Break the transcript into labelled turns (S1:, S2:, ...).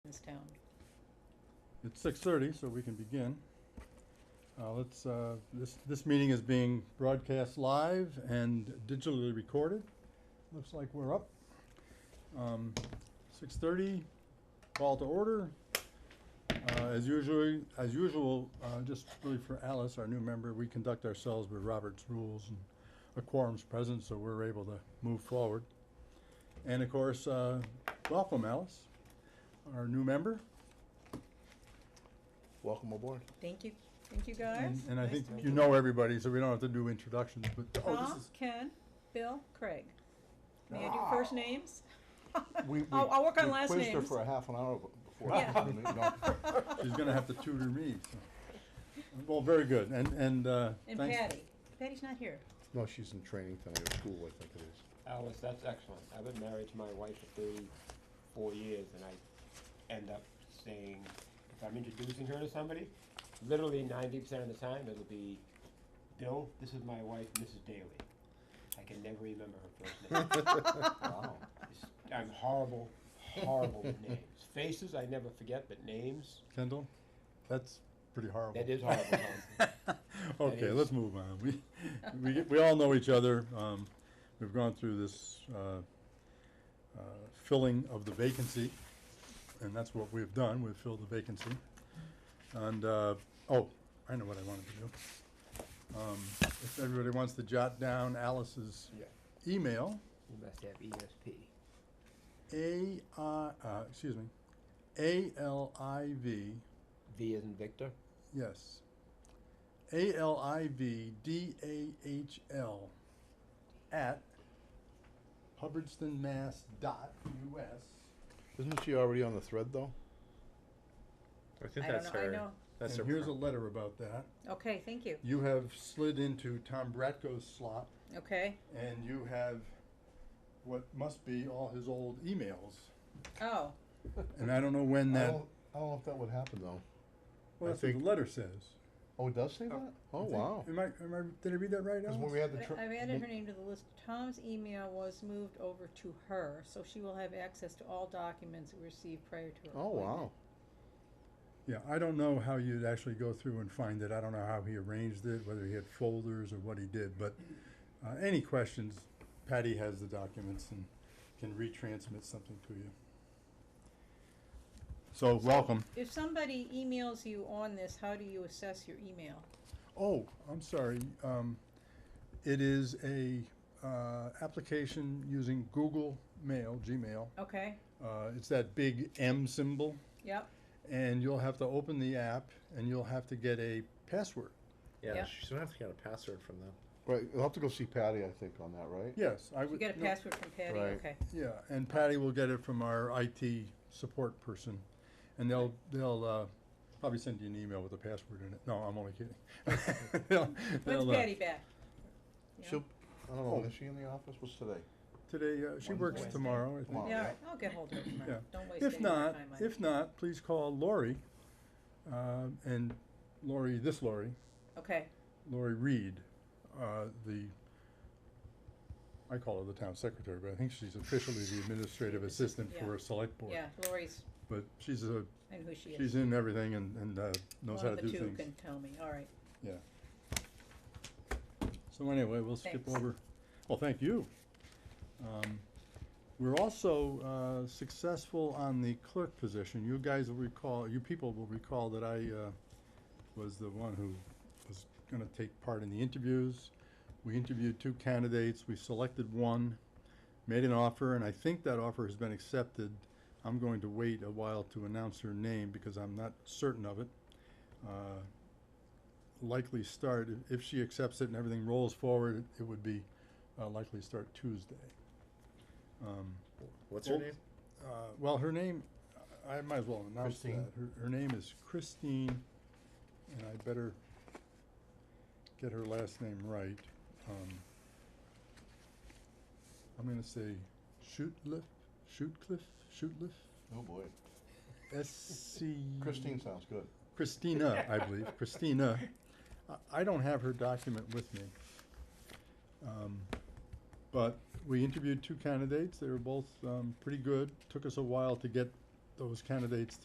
S1: this town.
S2: It's six thirty, so we can begin. Uh, let's, uh, this, this meeting is being broadcast live and digitally recorded. Looks like we're up. Um, six thirty, call to order. Uh, as usually, as usual, uh, just really for Alice, our new member, we conduct ourselves with Robert's rules and a quorum's present, so we're able to move forward. And of course, uh, welcome Alice, our new member.
S3: Welcome aboard.
S1: Thank you, thank you guys.
S2: And and I
S1: Nice
S2: think
S1: to meet
S2: you know everybody, so we don't have to do introductions, but, oh, this
S1: Tom,
S2: is,
S1: Ken, Bill, Craig. May I do first names?
S3: We, we,
S1: I'll, I'll work on
S3: we
S1: last
S3: quizzed her
S1: names.
S3: for a half an hour b- before.
S1: Yeah.
S3: the meeting. No.
S2: she's gonna have to tutor me, so. Well, very good, and, and, uh,
S1: And
S2: thanks-
S1: Patty. Patty's not here.
S3: No, she's in training tonight at school, I think it is.
S4: Alice, that's excellent. I've been married to my wife for thirty-four years, and I end up saying, if I'm introducing her to somebody, literally ninety percent of the time, it'll be, Bill, this is my wife, Mrs. Daly. I can never remember her first name.
S3: Wow.
S4: It's- I'm horrible, horrible with names. Faces, I never forget, but names,
S2: Kendall, that's pretty horrible.
S4: that is horrible, Tom.
S2: Okay,
S4: is-
S2: let's move on. We, we, get- we all know each other. Um, we've gone through this, uh, uh, filling of the vacancy, and that's what we've done. We've filled the vacancy. And, uh, oh, I know what I wanted to do. Um, if everybody wants to jot down Alice's
S4: Yeah.
S2: email,
S4: You must have E ESP.
S2: A, uh, uh, excuse me, A L I V
S4: V as in Victor?
S2: Yes. A L I V D A H L at hubbardstonmass.us.
S3: Isn't she already on the thread, though?
S5: I
S1: I
S5: think
S1: don't
S5: that's
S1: know, I
S5: her.
S1: know.
S5: That's
S2: and
S5: her.
S2: here's a
S5: pro-
S2: letter about that.
S1: Okay, thank you.
S2: You have slid into Tom Bratko's slot,
S1: Okay.
S2: and you have what must be all his old emails.
S1: Oh,
S2: And I don't know when
S3: I
S2: that.
S3: don't, I don't know if that would happen, though.
S2: Oh, Well,
S3: I
S2: that's what the
S3: think-
S2: letter says.
S3: Oh, it does say that? Oh, wow.
S2: Am I, am I, did I read that right?
S3: Because when
S2: Alex?
S3: we had the.
S1: I-
S3: tr-
S1: I've added her
S3: when-
S1: name to the list. Tom's email was moved over to her, so she will have access to all documents received prior to her
S3: Oh,
S1: appointment.
S3: wow.
S2: Yeah, I don't know how you'd actually go through and find it. I don't know how he arranged it, whether he had folders or what he did, but uh, any questions, Patty has the documents and can retransmit something to you. So, welcome.
S1: If somebody emails you on this, how do you assess your email?
S2: Oh, I'm sorry. Um, it is a uh, application using Google Mail, Gmail.
S1: Okay,
S2: Uh, it's that big M symbol,
S1: yep,
S2: and you'll have to open the app and you'll have to get a password.
S5: yeah,
S1: Yeah.
S5: she's gonna have to get a password from them.
S3: Right, you'll have to go see Patty, I think, on that, right?
S2: Yes, I would.
S1: you get a
S2: no.
S1: password from Patty,
S3: Right.
S1: okay.
S2: Yeah, and Patty will get it from our IT support person, and they'll, they'll, uh, probably send you an email with a password in it. No, I'm only kidding. They'll-
S1: When's
S2: they'll, uh,
S1: Patty back? Yeah.
S3: She'll, I don't know,
S2: Oh.
S3: is she in the office? What's today?
S2: Today, uh, she
S3: Wednesday.
S2: works
S1: Wednesday.
S2: tomorrow, I
S3: Tomorrow.
S2: think.
S3: Oh,
S1: Yeah,
S3: yeah.
S1: I'll get hold of it
S2: Yeah.
S1: tomorrow. Don't waste any
S2: If
S1: more time
S2: not,
S1: on it.
S2: if not, please call Lori, uh, and Lori, this Lori,
S1: Okay,
S2: Lori Reed, uh, the, I call her the town secretary, but I think she's officially the administrative assistant
S1: Yeah.
S2: for a select board.
S1: yeah, Lori's,
S2: But she's a
S1: and who she is.
S2: She's in everything and, and uh, knows how to do
S1: One of the two
S2: things.
S1: can tell me, all right.
S2: Yeah. So anyway, we'll skip
S1: Thanks.
S2: over. Well, thank you. Um, We're also uh, successful on the clerk position. You guys will recall, you people will recall that I uh, was the one who was gonna take part in the interviews. We interviewed two candidates, we selected one, made an offer, and I think that offer has been accepted. I'm going to wait a while to announce her name because I'm not certain of it. Uh, likely start, i- if she accepts it and everything rolls forward, it would be uh, likely start Tuesday. Um,
S5: What's
S2: Oh.
S5: her name?
S2: uh, Well, her name, I I might as well announce that.
S3: Christine.
S2: Her, her name is Christine, and I better get her last name right. Um, I'm gonna say Shootliff, Shootcliff, Shootliff,
S3: Oh, boy.
S2: S C.
S3: Christine sounds good.
S2: Christina, I believe, Christina. I- I don't have her document with me. Um, But we interviewed two candidates, they were both um, pretty good. Took us a while to get those candidates